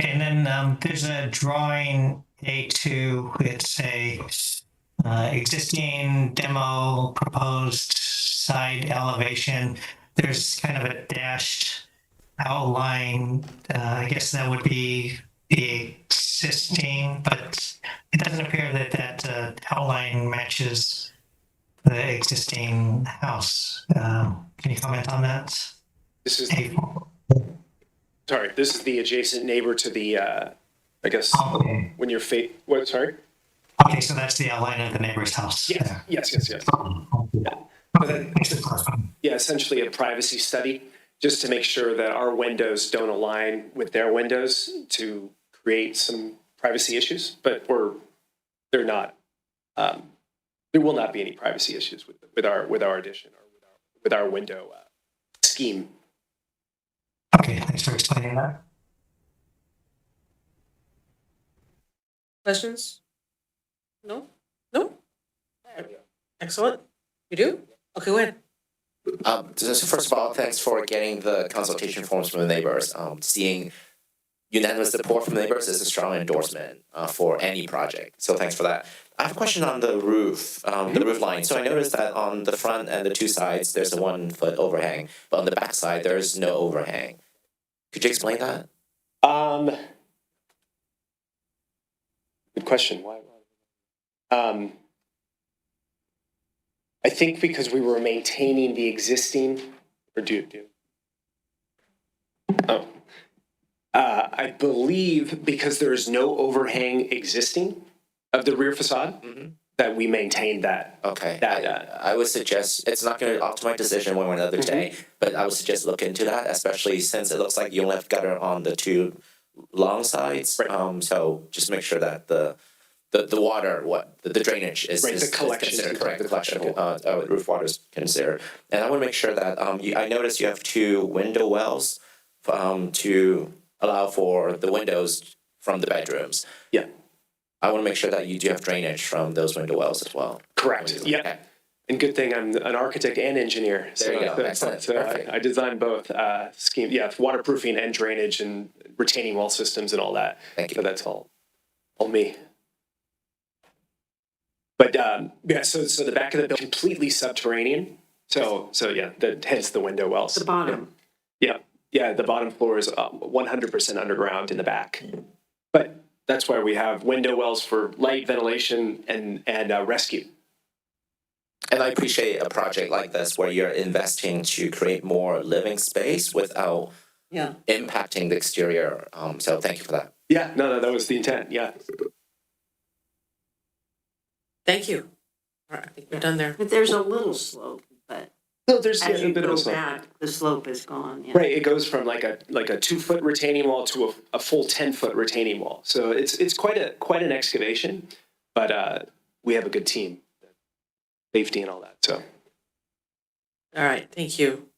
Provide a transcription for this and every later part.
And then um, there's a drawing A2, it's a uh, existing demo proposed side elevation. There's kind of a dashed outline. Uh, I guess that would be the existing, but it doesn't appear that that uh, outline matches the existing house. Um, can you comment on that? This is, A4. sorry, this is the adjacent neighbor to the, uh, I guess, Okay. when you're fa, what, sorry? Okay, so that's the outline of the neighbor's house. Yes, yes, yes, yes. Okay, thanks for clarifying. Yeah, essentially a privacy study, just to make sure that our windows don't align with their windows to create some privacy issues, but we're, they're not, um, there will not be any privacy issues with, with our, with our addition or with our, with our window, uh, scheme. Okay, thanks for explaining that. Questions? No? No? Excellent. You do? Okay, go ahead. Um, so so first of all, thanks for getting the consultation forms from the neighbors. Um, seeing unanimous support from the neighbors is a strong endorsement uh, for any project. So thanks for that. I have a question on the roof, um, the roof line. So I noticed that on the front and the two sides, there's a one foot overhang, but on the back side, there is no overhang. Could you explain that? Um, good question. Why? why- Um, I think because we were maintaining the existing, or do do. Oh, uh, I believe because there is no overhang existing of the rear facade Mhm. that we maintained that. Okay. That, uh, I, I would suggest it's not going to alter my decision one way or another Mm-hmm. day, but I would suggest look into that, especially since it looks like you only have gutter on the two long sides. Right. Um, so just make sure that the the, the water, what the, the drainage is, Right, the is, is collection is considered correct. correct. The collection Okay. uh, uh, roof water is considered, and I want to make sure that um, you, I noticed you have two window wells um, to allow for the windows from the bedrooms. Yeah. I want to make sure that you do have drainage from those window wells as well. Correct. Okay. Yeah. And good thing I'm an architect and engineer. So, There you go. so- Excellent. so uh, Perfect. I, I designed both uh, scheme. Yeah, waterproofing and drainage and retaining wall systems and all that. Thank you. So that's all, all me. But um, yeah, so so the back of the building completely subterranean. So so yeah, the, hence the window wells. The bottom. Yeah, yeah. The bottom floor is um, one hundred percent underground in the back, Mm-hmm. but that's why we have window wells for light ventilation and and uh, rescue. And I appreciate a project like this where you're investing to create more living space without Yeah. impacting the exterior. Um, so thank you for that. Yeah, no, no, that was the intent. Yeah. Thank you. All right, I think we're done there. But there's a little slope, but No, there's as a you bit of a go slope. back, the slope is gone, yeah. Right, it goes from like a like a two foot retaining wall to a, a full ten foot retaining wall. So it's it's quite a quite an excavation, but uh, we have a good team, safety and all that. So All right, thank you.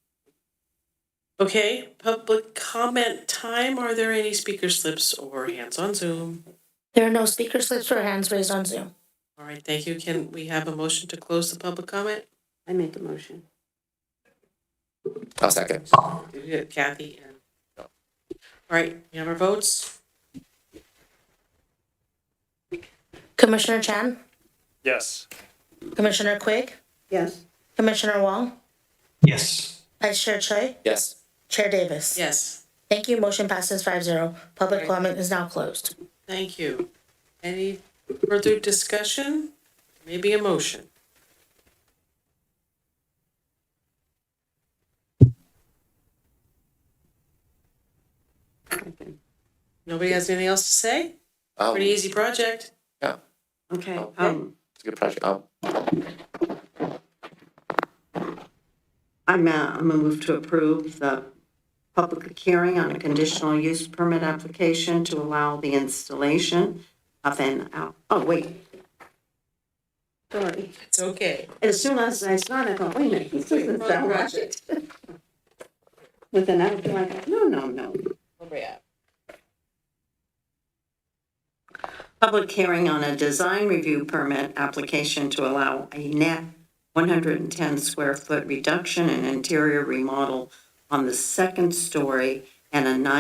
Okay, public comment time. Are there any speaker slips or hands on Zoom? There are no speaker slips or hands raised on Zoom. All right, thank you. Can we have a motion to close the public comment? I make a motion. I'll second. We got Kathy and. All right, we have our votes? Commissioner Chan, Yes. Commissioner Quigg, Yes. Commissioner Wong, Yes, Vice Chair Choi, Yes. Chair Davis. Yes. Thank you. Motion passes five zero. Public Right. comment is now closed. Thank you. Any further discussion? Maybe a motion? Nobody has anything else to say? Um, Pretty easy project. Yeah, Okay, um, it's a good project. Um, I'm, uh, I'm gonna move to approve the public hearing on a conditional use permit application to allow the installation of an, out- oh, wait. Sorry, It's okay. as soon as I started, I thought, wait a minute, this doesn't sound right. With an outdoor, like, no, no, no. Public hearing on a design review permit application to allow a net 110 square foot reduction in interior remodel on the second story and a nine.